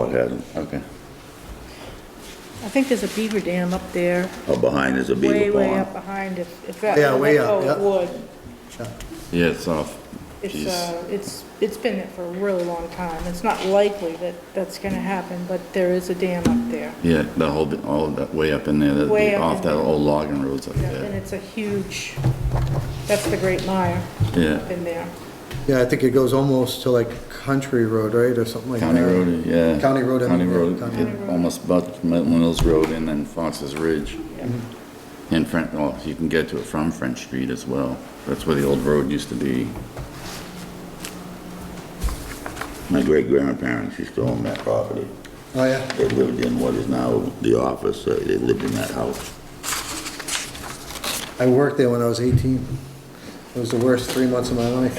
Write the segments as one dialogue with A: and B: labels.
A: Oh, it hasn't, okay.
B: I think there's a beaver dam up there,
A: Oh, behind is a
B: way,
A: beaver
B: way up
A: pond.
B: behind it. If that-
C: Yeah, way up,
B: oh,
C: yeah.
B: it would.
D: Yeah, it's off.
B: It's,
D: Jeez.
B: uh, it's, it's been there for a really long time. It's not likely that that's gonna happen, but there is a dam up there.
D: Yeah, that whole, bit- all of that way up in there, that'd
B: Way
D: be
B: up
D: off
B: in
D: that
B: there.
D: old logging roads up
B: Yeah, And
D: there.
B: it's a huge, that's the Great Mire up
D: Yeah,
B: in there.
C: Yeah, I think it goes almost to like Country Road, right, or something like that?
D: County Road, yeah.
C: County Road, I
D: County
C: mean, yeah,
D: Road,
C: County
D: it almost butts Milton Mills Road and then Fox's Ridge.
C: Mm-hmm.
D: And French, well, you can get to it from French Street as well. That's where the old road used to be.
A: My great-grandparents used to own that property.
C: Oh, yeah,
A: They lived in what is now the office, uh, they lived in that house.
C: I worked there when I was 18. It was the worst three months of my life.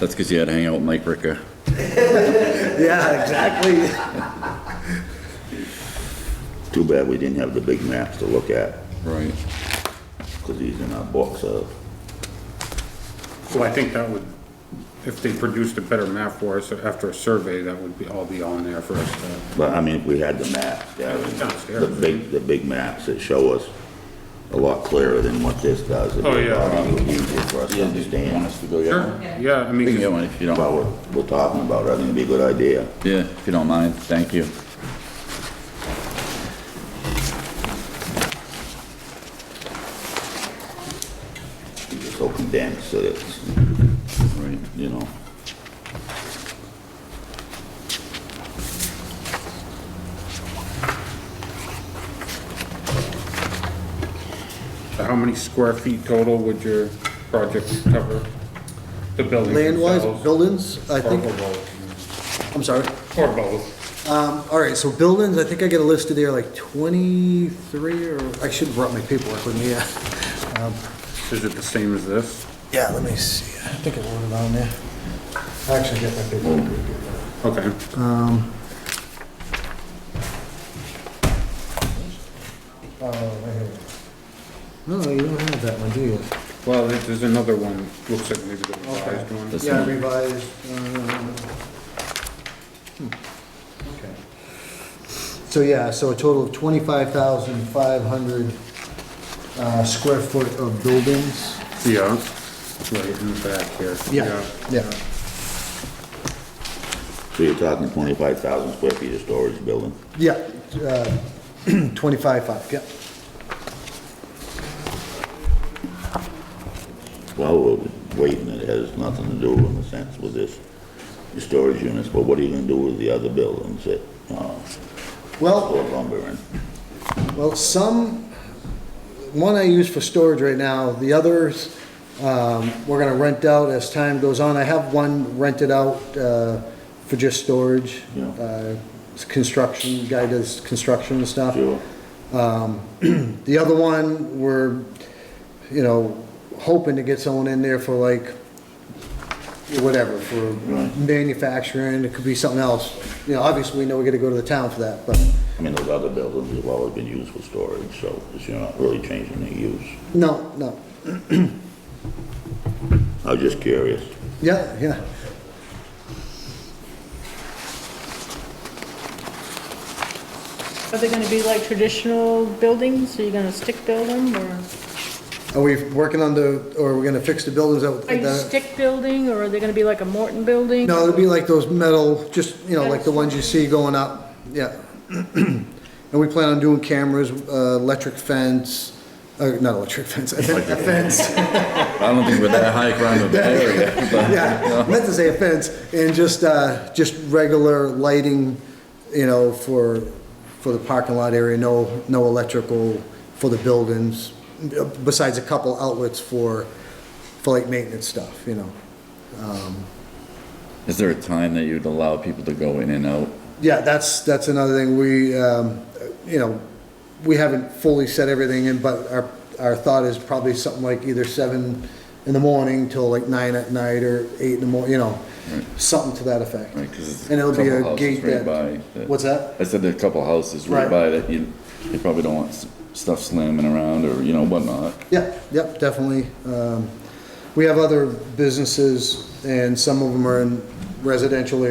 D: That's because you had to hang out with Mike Ricker.
C: Yeah, exactly.
A: Too bad we didn't have the big maps to look at,
D: Right.
A: because these in our books of,
E: Well, I think that would, if they produced a better map for us after a survey, that would be, all be on there for us to.
A: but I mean, if we had the maps, Darren,
E: Downstairs.
A: the big, the big maps that show us a lot clearer than what this does. it'd be
E: Oh, yeah.
A: probably Easier for us to understand
D: to go get one?
E: Yeah, I mean,
D: We can get
E: 'cause
D: one if you don't,
A: what we're, we're talking about, I think it'd be a good idea.
D: yeah, if you don't mind, thank you.
A: It's so condensed that it's,
D: Right.
A: you know,
E: how many square feet total would your project cover? The buildings
C: Land-wise,
E: themselves?
C: buildings, I
E: Or
C: think,
E: both.
C: I'm sorry.
E: Or both.
C: Um, all right, so buildings, I think I get a listed there like 23 or, I should have brought my paperwork with me, yeah. Um,
E: Is it the same as this?
C: Yeah, let me see. I think I wrote it on there. I actually got my paperwork.
E: Okay.
C: Oh, right here. No, you don't have that one, do you?
E: Well, there- there's another one, looks like maybe the revised one.
D: This
C: Yeah,
D: one.
C: revised. um, hmm, okay. So, yeah, so a total of 25,500 uh, square foot of buildings.
E: Yeah, right in the back here.
C: Yeah.
A: so you're talking twenty-five thousand square feet of storage building.
C: Yeah, uh, 25,500, yeah.
A: Well, we're waiting, it has nothing to do in a sense with this, the storage units, but what are you gonna do with the other buildings that, uh,
C: Well,
A: or lumber and?
C: Well, some, one I use for storage right now, the others, um, we're gonna rent out as time goes on. I have one rented out, uh, for just storage.
A: Yeah.
C: Uh, it's construction, guy does construction and stuff.
A: Sure.
C: The other one, we're, you know, hoping to get someone in there for like, whatever, for manufacturing, it could be something else. You know, obviously, we know we gotta go to the town for that, but,
A: I mean, those other buildings have always been used for storage, so it's- you're not really changing the use.
C: no, no.
A: I was just curious.
C: Yeah, yeah.
B: Are they gonna be like traditional buildings? Are you gonna stick build them or?
C: Are we working on the, or are we gonna fix the buildings that?
B: Are you
C: that-
B: stick building or are they gonna be like a Morton building?
C: No, it'll be like those metal, just, you know, like the ones you see going up, yeah. And we plan on doing cameras, uh, electric fence, uh, not electric fence, a fen- a fence,
D: I don't think we're that high crime of area, but.
C: yeah, meant to say a fence, and just, uh, just regular lighting, you know, for, for the parking lot area, no, no electrical for the buildings, besides a couple outlets for, for like maintenance stuff, you know.
D: Is there a time that you'd allow people to go in and out?
C: Yeah, that's, that's another thing, we, um, you know, we haven't fully set everything in, but our, our thought is probably something like either seven in the morning till like nine at night or eight in the morning, you know, something to that effect.
D: Right, 'cause it's
C: And it'll be
D: couple
C: a
D: houses
C: gate
D: right
C: that,
D: by that-
C: what's that?
D: I said there are a couple houses right
C: Right.
D: by that you, you probably don't want s- stuff slamming around or, you know, whatnot.
C: Yeah, yep, definitely. Um, We have other businesses, and some of them are in residential area.